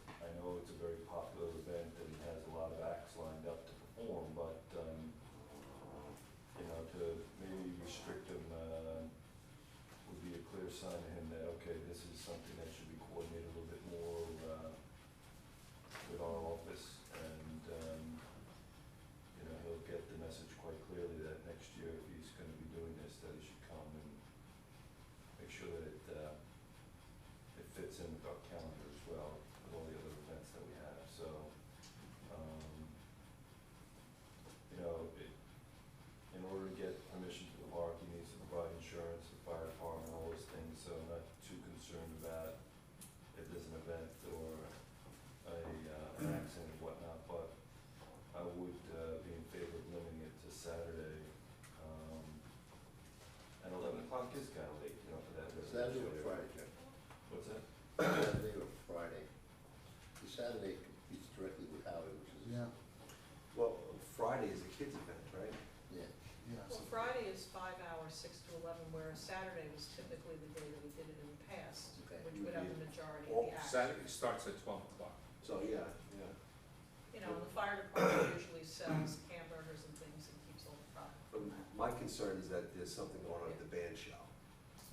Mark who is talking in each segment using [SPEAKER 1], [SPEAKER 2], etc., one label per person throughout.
[SPEAKER 1] um, uh, sign to him that, okay, this is something that should be coordinated a little bit more, uh, with our office, and, um, you know, he'll get the message quite clearly that next year, if he's gonna be doing this, that he should come and make sure that it, uh, it fits in with our calendar as well, with all the other events that we have, so, um, you know, it, in order to get permission to embark, he needs to provide insurance, the fire department, all those things, so I'm not too concerned about if there's an event or a, uh, an accident and whatnot, but I would, uh, be in favor of limiting it to Saturday, um, and eleven o'clock is kinda late, you know, for that. residential
[SPEAKER 2] Saturday or
[SPEAKER 1] area.
[SPEAKER 2] Friday, Jim?
[SPEAKER 1] What's that?
[SPEAKER 2] Saturday or Friday? The Saturday competes directly with Howie, which is,
[SPEAKER 3] Yeah,
[SPEAKER 4] Well, Friday is a kids' event, right?
[SPEAKER 2] yeah,
[SPEAKER 3] yes.
[SPEAKER 5] Well, Friday is five hours, six to eleven, whereas Saturday was typically the day that we did it in the past,
[SPEAKER 2] Okay.
[SPEAKER 5] which would have the majority of
[SPEAKER 1] Oh,
[SPEAKER 4] Well,
[SPEAKER 5] the action.
[SPEAKER 6] Saturday starts at twelve o'clock.
[SPEAKER 4] So, yeah, yeah.
[SPEAKER 5] You know, the fire department usually sells hamburgers and things and keeps all the product from
[SPEAKER 4] Um,
[SPEAKER 5] that.
[SPEAKER 4] My concern is that there's something going on at the band show.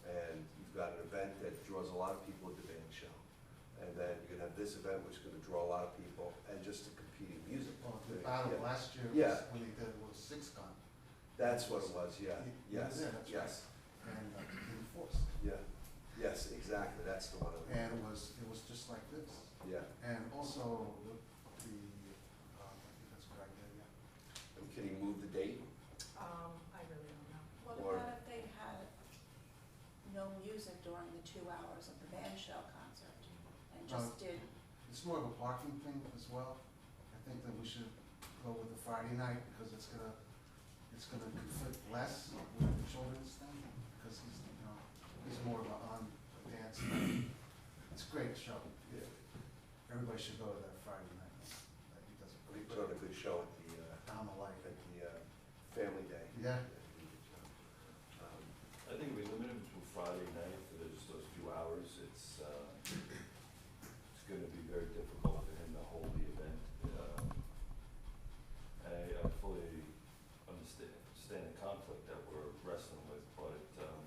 [SPEAKER 4] And you've got an event that draws a lot of people at the band show. And then you're gonna have this event which is gonna draw a lot of people and just the competing music.
[SPEAKER 3] Well, the battle
[SPEAKER 4] Yeah.
[SPEAKER 3] last year was,
[SPEAKER 4] Yeah.
[SPEAKER 3] when they did was six gun,
[SPEAKER 4] That's what it was, yeah,
[SPEAKER 3] Yeah,
[SPEAKER 4] yes,
[SPEAKER 3] yeah, that's
[SPEAKER 4] yes,
[SPEAKER 3] and uh, they enforced,
[SPEAKER 4] yeah, yes, exactly, that's the one. I'm-
[SPEAKER 3] and it was, it was just like this.
[SPEAKER 4] Yeah,
[SPEAKER 3] And also, the, uh, I think that's what I did, yeah.
[SPEAKER 4] And can you move the date?
[SPEAKER 5] Um, I really don't know.
[SPEAKER 7] What
[SPEAKER 4] Or-
[SPEAKER 7] about if they had no music during the two hours of the band shell concert and just did,
[SPEAKER 3] Uh, It's more of a parking thing as well. I think that we should go with the Friday night, because it's gonna, it's gonna conflict less with the children's thing, because he's, you know, he's more of a on dance. night. It's a great show.
[SPEAKER 4] Yeah.
[SPEAKER 3] Everybody should go to that Friday night. Like, He does a
[SPEAKER 4] We
[SPEAKER 3] great
[SPEAKER 4] put on a
[SPEAKER 3] job.
[SPEAKER 4] good show at the, uh,
[SPEAKER 3] I'm a
[SPEAKER 4] at
[SPEAKER 3] light.
[SPEAKER 4] the, uh, Family Day.
[SPEAKER 3] Yeah.
[SPEAKER 4] Um,
[SPEAKER 1] I think we limit it to Friday night for those, those few hours, it's, uh, it's gonna be very difficult for him to hold the event. Um, I, I fully understand, understand the conflict that we're wrestling with, but, um,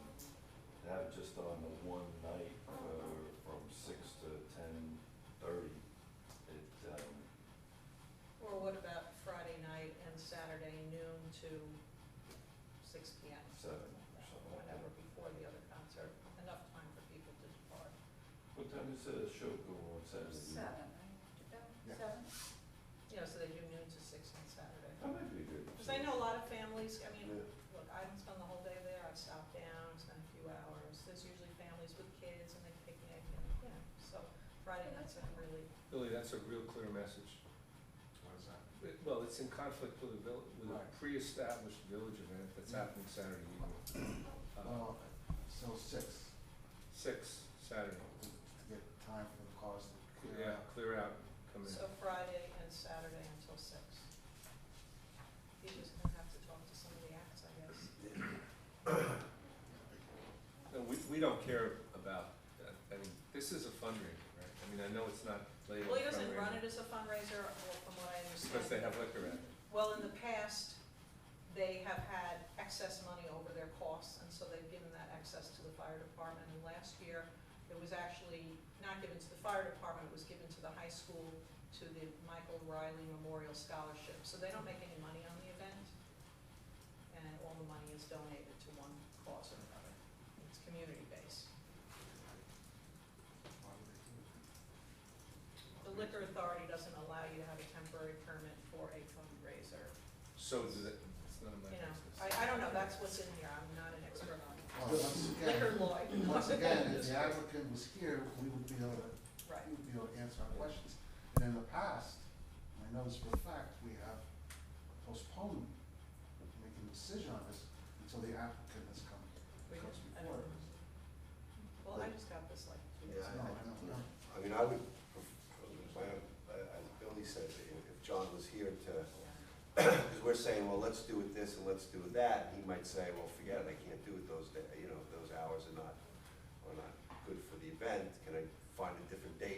[SPEAKER 1] to have it just on the one night, uh, from six to ten thirty, it, um,
[SPEAKER 5] Or what about Friday night and Saturday noon to six P M?
[SPEAKER 1] seven or something like that.
[SPEAKER 5] Whatever, before the other concert, enough time for people to depart.
[SPEAKER 1] What time is the show going on Saturday?
[SPEAKER 7] seven, right? Did that-
[SPEAKER 3] Yeah.
[SPEAKER 7] Seven?
[SPEAKER 5] You know, so they do noon to six on Saturday.
[SPEAKER 1] That might be good.
[SPEAKER 5] Because I know a lot of families, I mean,
[SPEAKER 4] Yeah.
[SPEAKER 5] look, I don't spend the whole day there, I've stopped down, spent a few hours. There's usually families with kids and they picnic and, you know, so Friday nights are really,
[SPEAKER 6] Billy, that's a real clear message.
[SPEAKER 3] What is that?
[SPEAKER 6] It- Well, it's in conflict with a vill, with a
[SPEAKER 3] Right.
[SPEAKER 6] pre-established village event that's
[SPEAKER 4] Mm-hmm.
[SPEAKER 6] happening Saturday evening. Uh,
[SPEAKER 3] Well, so six,
[SPEAKER 6] Six, Saturday.
[SPEAKER 3] to to get time for the cars to clear
[SPEAKER 6] Yeah,
[SPEAKER 3] out.
[SPEAKER 6] clear out, come in.
[SPEAKER 5] so Friday and Saturday until six. You just gonna have to talk to some of the acts, I guess.
[SPEAKER 6] No, we, we don't care about, that. I mean, this is a fundraiser, right? I mean, I know it's not labeled
[SPEAKER 5] Well, he doesn't run
[SPEAKER 6] fundraiser
[SPEAKER 5] it as a fundraiser, well, from what I
[SPEAKER 6] Because they
[SPEAKER 5] understand.
[SPEAKER 6] have liquor at it.
[SPEAKER 5] Well, in the past, they have had excess money over their costs, and so they've given that excess to the fire department. And last year, it was actually not given to the fire department, it was given to the high school, to the Michael Riley Memorial Scholarship. So they don't make any money on the event, and all the money is donated to one cause or another. It's community-based.
[SPEAKER 3] Why would they do it?
[SPEAKER 5] The liquor authority doesn't allow you to have a temporary permit for a fundraiser.
[SPEAKER 6] So does it, it's none of my
[SPEAKER 5] You know,
[SPEAKER 6] business.
[SPEAKER 5] I, I don't know, that's what's in here, I'm not an expert on
[SPEAKER 3] Well, once
[SPEAKER 5] liquor
[SPEAKER 3] again,
[SPEAKER 5] law.
[SPEAKER 3] once again, if the applicant was here, we would be able to
[SPEAKER 5] Right,
[SPEAKER 3] I would be able to answer our questions. And in the past, and I know this for a fact, we have postponed making a decision on this until the applicant has come,
[SPEAKER 5] We
[SPEAKER 3] comes
[SPEAKER 5] don't- I
[SPEAKER 3] before.
[SPEAKER 5] don't-
[SPEAKER 3] us.
[SPEAKER 5] well, I just got this like two
[SPEAKER 4] Yeah,
[SPEAKER 5] weeks
[SPEAKER 4] I-
[SPEAKER 3] No,
[SPEAKER 5] ago.
[SPEAKER 3] I don't know.
[SPEAKER 4] I mean, I would, pref- my own- I- I- Billy said, if if John was here to, because we're saying, well, let's do it this and let's do it that, he might say, well, forget it, I can't do it those, da- you know, those hours are not, are not good for the event, can I find a different date